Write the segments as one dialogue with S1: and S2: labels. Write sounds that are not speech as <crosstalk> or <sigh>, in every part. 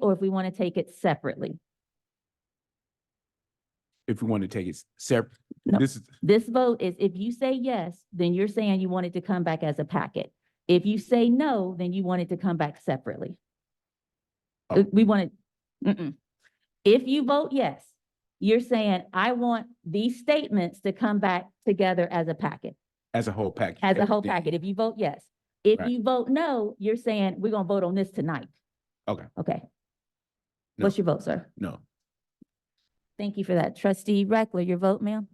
S1: or if we want to take it separately.
S2: if we want to take it separate.
S1: No.
S2: This is,
S1: This vote is, if you say yes, then you're saying you want it to come back as a packet. If you say no, then you want it to come back separately.
S2: Oh.
S1: Uh, We want it, mm-mm. If you vote yes, you're saying, I want these statements to come back together as a packet,
S2: as a whole package.
S1: as a whole
S2: Yeah.
S1: packet, if you vote yes. If
S2: Right.
S1: you vote no, you're saying, we're gonna vote on this tonight.
S2: Okay.
S1: Okay.
S2: No.
S1: What's your vote, sir?
S2: No,
S1: Thank you for that. Trustee Reckler, your vote, ma'am?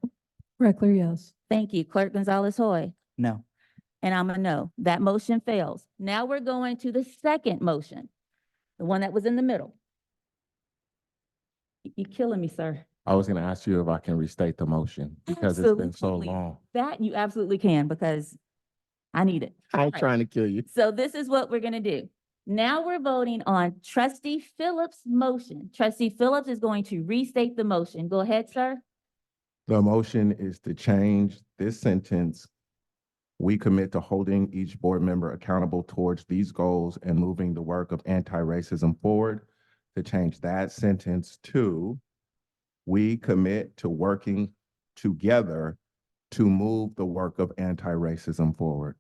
S3: Reckler, yes.
S1: Thank you. Clerk Gonzalez Hoy?
S3: No.
S1: And I'm a no. That motion fails. Now we're going to the second motion, the one that was in the middle. Y- You killing me, sir.
S4: I was gonna ask you if I can restate the motion because it's been so
S1: Absolutely.
S4: long.
S1: That you absolutely can because I need it.
S4: I ain't
S1: Right.
S4: trying to kill you.
S1: So this is what we're gonna do. Now we're voting on trustee Phillips' motion. Trustee Phillips is going to restate the motion. Go ahead, sir.
S4: The motion is to change this sentence. We commit to holding each board member accountable towards these goals and moving the work of anti-racism forward. To change that sentence to, we commit to working together to move the work of anti-racism forward.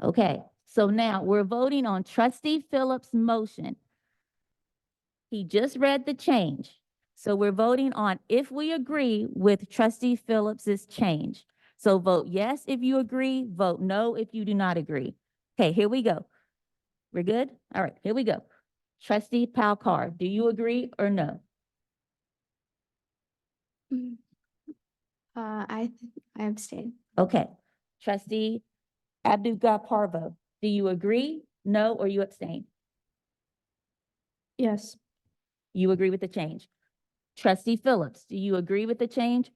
S1: Okay, so now we're voting on trustee Phillips' motion. He just read the change. So we're voting on if we agree with trustee Phillips's change. So vote yes if you agree, vote no if you do not agree. Okay, here we go. We're good? All right, here we go. Trustee Palcar, do you agree or no?
S5: Mm. Uh, I, th- I abstain.
S1: Okay. Trustee Abdu Parvo, do you agree, no, or you abstain?
S5: Yes.
S1: You agree with the change. Trustee Phillips, do you agree with the change?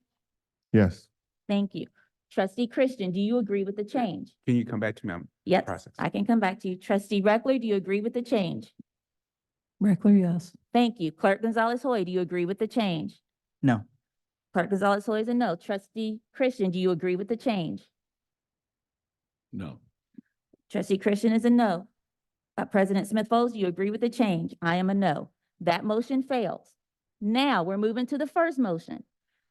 S4: Yes.
S1: Thank you. Trustee Christian, do you agree with the change?
S2: can you come back to me? I'm-
S1: Yep,
S2: Process.
S1: I can come back to you. Trustee Reckler, do you agree with the change?
S3: Reckler, yes.
S1: Thank you. Clerk Gonzalez Hoy, do you agree with the change?
S3: No.
S1: Clerk Gonzalez Hoy is a no. Trustee Christian, do you agree with the change?
S2: No,
S1: Trustee Christian is a no. Uh, President Smith Folds, do you agree with the change? I am a no. That motion fails. Now, we're moving to the first motion.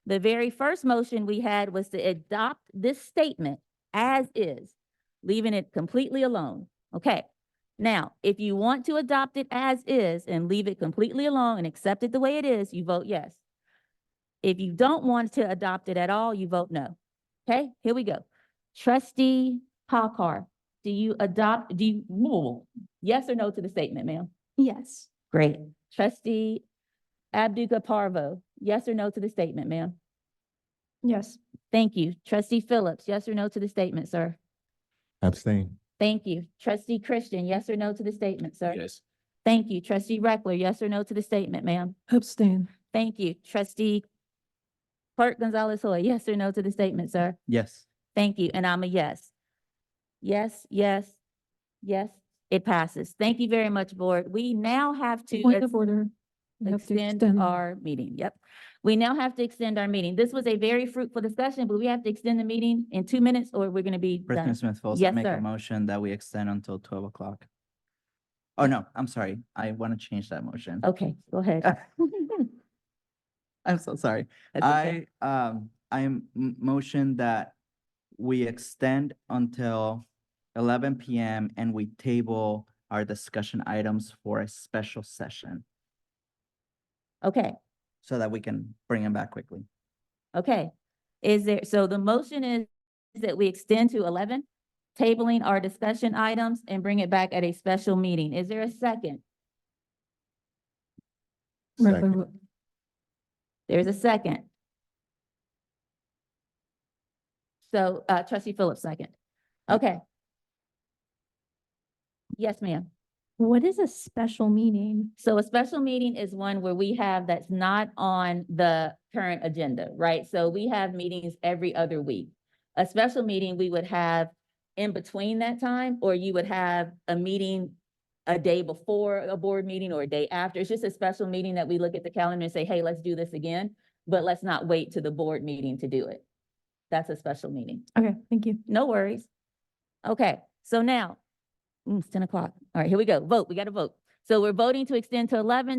S1: The very first motion we had was to adopt this statement as is, leaving it completely alone. Okay. Now, if you want to adopt it as is and leave it completely alone and accept it the way it is, you vote yes. If you don't want to adopt it at all, you vote no. Okay, here we go. Trustee Hawkar, do you adopt, do you, whoa, yes or no to the statement, ma'am?
S5: Yes.
S1: Great. Trustee Abduga Parvo, yes or no to the statement, ma'am?
S5: <laughs> Yes.
S1: Thank you. Trustee Phillips, yes or no to the statement, sir?
S4: Abstain.
S1: Thank you. Trustee Christian, yes or no to the statement, sir?
S2: yes,
S1: Thank you. Trustee Reckler, yes or no to the statement, ma'am?
S3: Abstain.
S1: Thank you. Trustee Clerk Gonzalez Hoy, yes or no to the statement, sir?
S3: Yes.
S1: Thank you, and I'm a yes. Yes, yes, yes, it passes. Thank you very much, board. We now have to
S3: Point
S1: ex-
S3: of order. You have to
S1: extend
S3: extend.
S1: our meeting, yep. We now have to extend our meeting. This was a very fruitful discussion, but we have to extend the meeting in two minutes or we're gonna be done.
S6: President Smith Folds, I
S1: Yes,
S6: make
S1: sir.
S6: a motion that we extend until twelve o'clock. Oh, no, I'm sorry. I want to change that motion.
S1: Okay, go ahead.
S6: I'm so sorry.
S1: That's okay.
S6: I, um, I am m- motion that we extend until eleven PM and we table our discussion items for a special session
S1: Okay,
S6: so that we can bring them back quickly.
S1: okay. Is there, so the motion is that we extend to eleven, tabling our discussion items and bring it back at a special meeting. Is there a second?
S3: Reckler,
S4: Second.
S3: w-
S1: There's a second. So, uh, trustee Phillips, second. Okay. Yes, ma'am.
S5: What is a special meeting?
S1: So a special meeting is one where we have that's not on the current agenda, right? So we have meetings every other week. A special meeting we would have in between that time, or you would have a meeting a day before a board meeting or a day after. It's just a special meeting that we look at the calendar and say, hey, let's do this again, but let's not wait to the board meeting to do it. That's a special meeting.
S5: Okay, thank you.
S1: No worries. Okay, so now, mm, it's ten o'clock. All right, here we go. Vote, we got to vote. So we're voting to extend to eleven